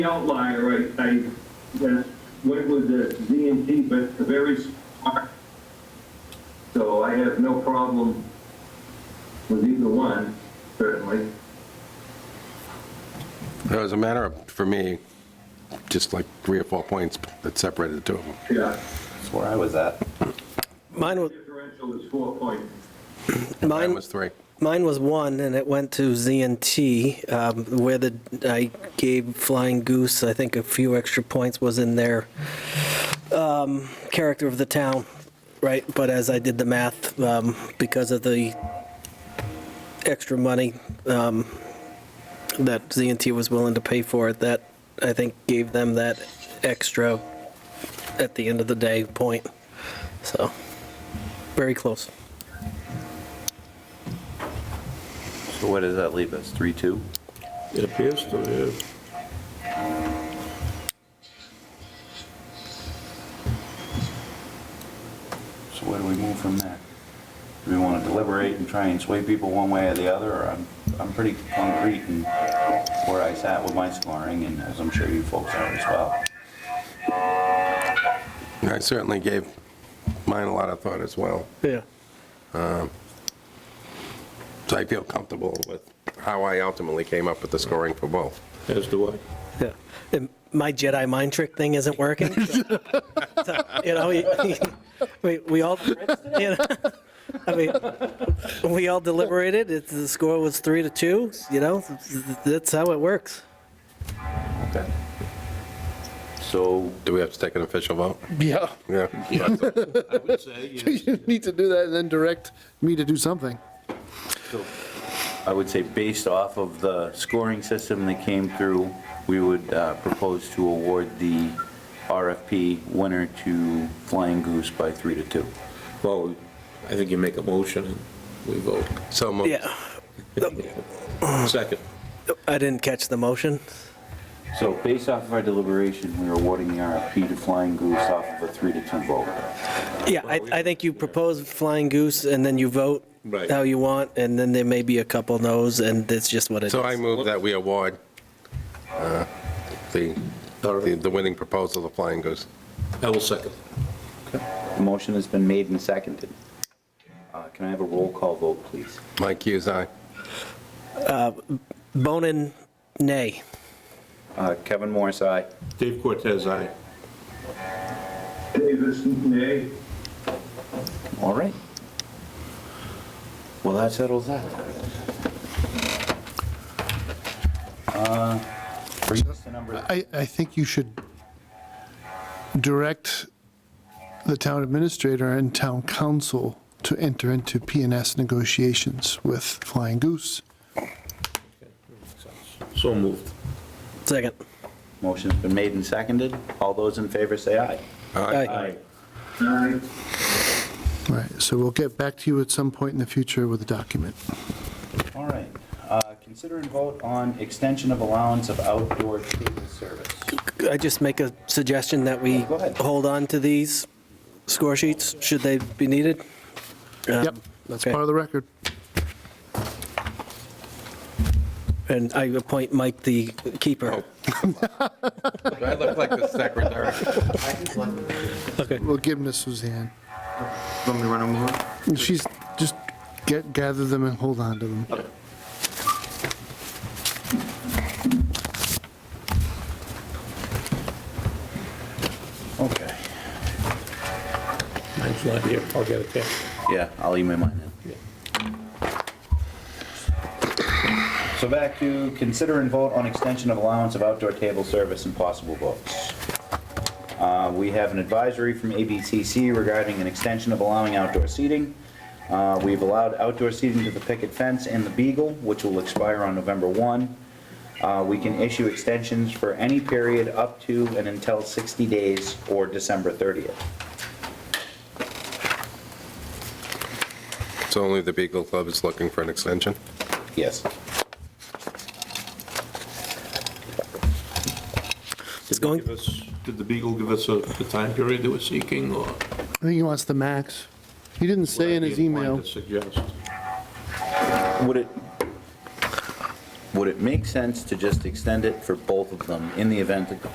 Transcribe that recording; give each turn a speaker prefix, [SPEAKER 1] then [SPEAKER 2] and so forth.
[SPEAKER 1] the outlier, I, I uh, went with the ZNT, but the very smart. So I have no problem with either one, certainly.
[SPEAKER 2] It was a matter of, for me, just like three or four points that separated the two of them.
[SPEAKER 1] Yeah,
[SPEAKER 3] That's where I was at.
[SPEAKER 4] Mine was,
[SPEAKER 1] differential is four points.
[SPEAKER 2] Mine
[SPEAKER 4] mine,
[SPEAKER 2] was three.
[SPEAKER 4] mine was one, and it went to ZNT, um, where the, I gave Flying Goose, I think a few extra points was in their um, character of the town, right? But as I did the math, um, because of the extra money um, that ZNT was willing to pay for it, that, I think, gave them that extra, at the end of the day, point. So, very close.
[SPEAKER 3] So what does that leave us? Three, two?
[SPEAKER 5] It appears to, yeah.
[SPEAKER 3] So where do we move from there? Do we want to deliberate and try and sway people one way or the other, or I'm, I'm pretty concrete in where I sat with my scoring, and as I'm sure you folks are as well.
[SPEAKER 2] I certainly gave mine a lot of thought as well.
[SPEAKER 4] Yeah.
[SPEAKER 2] So I feel comfortable with how I ultimately came up with the scoring for both.
[SPEAKER 5] as do I.
[SPEAKER 4] Yeah. And My Jedi mind trick thing isn't working. so- so, You know, we- we, we all, you know, I mean, we all deliberated, it's, the score was three to two, you know, that's how it works.
[SPEAKER 3] Okay. So,
[SPEAKER 2] Do we have to take an official vote?
[SPEAKER 6] Yeah,
[SPEAKER 2] Yeah.
[SPEAKER 5] I would say, yeah.
[SPEAKER 6] you need to do that and then direct me to do something.
[SPEAKER 3] so I would say based off of the scoring system that came through, we would uh, propose to award the RFP winner to Flying Goose by three to two.
[SPEAKER 5] well, I think you make a motion and we vote.
[SPEAKER 2] So moved.
[SPEAKER 4] Yeah.
[SPEAKER 5] Second.
[SPEAKER 4] I didn't catch the motion.
[SPEAKER 3] So based off of our deliberation, we're awarding the RFP to Flying Goose off of a three to two vote.
[SPEAKER 4] Yeah, I, I think you propose Flying Goose and then you vote
[SPEAKER 5] Right.
[SPEAKER 4] how you want, and then there may be a couple no's, and that's just what it is.
[SPEAKER 2] So I move that we award uh, the, the the winning proposal, the Flying Goose.
[SPEAKER 5] I will second.
[SPEAKER 3] The motion has been made and seconded. Uh, Can I have a roll call vote, please?
[SPEAKER 2] Mike Hughes, aye.
[SPEAKER 4] Bonin, nay.
[SPEAKER 3] Uh, Kevin Morris, aye.
[SPEAKER 5] Dave Cortez, aye.
[SPEAKER 1] Davis, nay.
[SPEAKER 3] All right. Well, that settles that. Uh, Brings us to number,
[SPEAKER 6] I, I think you should direct the town administrator and town council to enter into PNS negotiations with Flying Goose.
[SPEAKER 5] So moved.
[SPEAKER 4] Second.
[SPEAKER 3] motion's been made and seconded. All those in favor say aye.
[SPEAKER 2] Aye.
[SPEAKER 1] Aye.
[SPEAKER 6] All right, so we'll get back to you at some point in the future with a document.
[SPEAKER 3] All right. Uh, Consider and vote on extension of allowance of outdoor table service.
[SPEAKER 4] I just make a suggestion that we
[SPEAKER 3] Go ahead.
[SPEAKER 4] hold on to these score sheets, should they be needed? Um,
[SPEAKER 6] Yep, that's part of the record.
[SPEAKER 4] And I appoint Mike the keeper.
[SPEAKER 2] Oh. Do I look like the secretary?
[SPEAKER 6] We'll give them to Suzanne.
[SPEAKER 3] Want me to run over?
[SPEAKER 6] She's, just get, gather them and hold on to them.
[SPEAKER 3] Okay.
[SPEAKER 5] Mine's not here. I'll get it there.
[SPEAKER 3] Yeah, I'll email mine in. So back to consider and vote on extension of allowance of outdoor table service and possible votes. Uh, We have an advisory from ABCC regarding an extension of allowing outdoor seating. Uh, We've allowed outdoor seating to the picket fence and the Beagle, which will expire on November 1. Uh, We can issue extensions for any period up to and until 60 days or December 30th.
[SPEAKER 2] So only the Beagle Club is looking for an extension?
[SPEAKER 3] Yes.
[SPEAKER 4] It's going,
[SPEAKER 5] Give us- Did the Beagle give us a- the time period they were seeking or?
[SPEAKER 6] I think he wants the max. He didn't say in his email.
[SPEAKER 5] Would I be inclined to suggest?
[SPEAKER 3] Would it, would it make sense to just extend it for both of them in the event that the